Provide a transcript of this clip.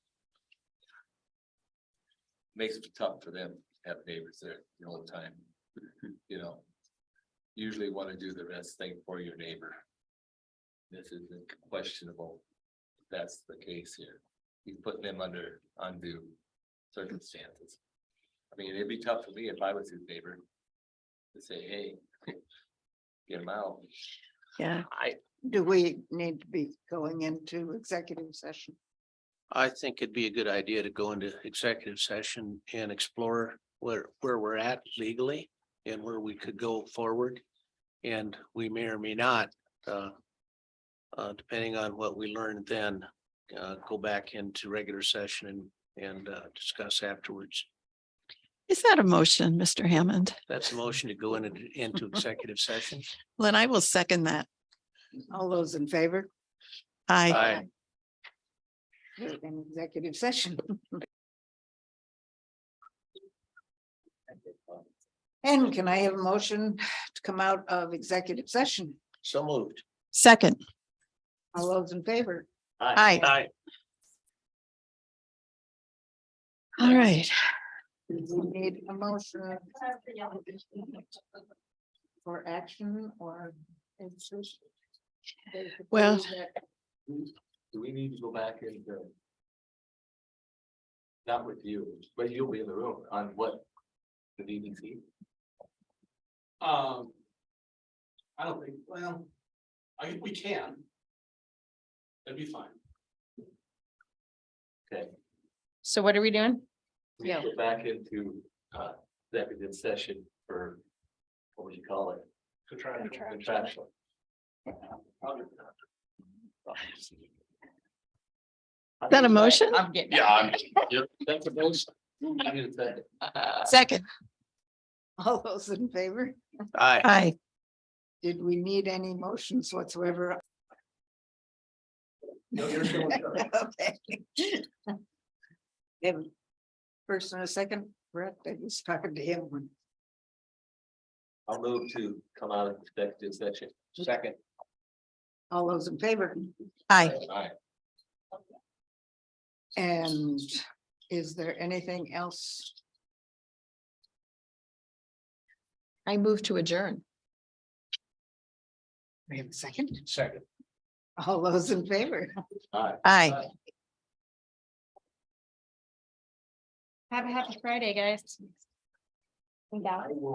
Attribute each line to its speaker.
Speaker 1: makes it tough for them to have neighbors there the whole time, you know. Usually want to do the best thing for your neighbor. This is questionable. if That's the case here. You put them under undue circumstances. I mean, it'd be tough for me if I was his neighbor. To say, hey. Get him out.
Speaker 2: Yeah,
Speaker 3: I,
Speaker 4: Do we need to be going into executive session?
Speaker 3: I think it'd be a good idea to go into executive session and explore where, where we're at legally and where we could go forward. And we may or may not, uh, uh, depending on what we learn then, uh, go back into regular session and, and, uh, discuss afterwards.
Speaker 2: is that a motion, Mr. Hammond?
Speaker 3: That's a motion to go into, into executive session.
Speaker 2: Well, Then I will second that.
Speaker 4: All those in favor?
Speaker 2: I,
Speaker 3: Aye.
Speaker 4: We're In executive session. And can I have a motion to come out of executive session?
Speaker 3: So moved.
Speaker 2: second,
Speaker 4: All those in favor?
Speaker 2: Aye.
Speaker 3: Aye.
Speaker 2: all right.
Speaker 4: We need a motion. For action or.
Speaker 2: Well-
Speaker 1: Do we need to go back and uh, Not with you, but you'll be in the room on what? The DVC?
Speaker 5: Um. I don't think, well, I think we can. That'd be fine.
Speaker 6: So what are we doing?
Speaker 1: We
Speaker 6: Yeah.
Speaker 1: Go back into uh executive session for, what would you call it? Contractual.
Speaker 2: Is that a motion?
Speaker 6: I'm getting.
Speaker 1: Yeah, I'm, yep, that's a motion. I'm gonna second.
Speaker 2: Second,
Speaker 4: All those in favor?
Speaker 3: Aye.
Speaker 2: I,
Speaker 4: Did we need any motions whatsoever?
Speaker 5: No, you're still in charge.
Speaker 4: Okay. Him. First and a second, Brett, I just talking to him when
Speaker 1: I'll move to come out of executive session.
Speaker 3: Second.
Speaker 4: all those in favor.
Speaker 2: I,
Speaker 1: Aye.
Speaker 4: And is there anything else?
Speaker 6: I move to adjourn.
Speaker 4: We have a second.
Speaker 3: Second.
Speaker 4: All those in favor.
Speaker 1: Aye.
Speaker 2: I.
Speaker 6: Have a happy Friday, guys.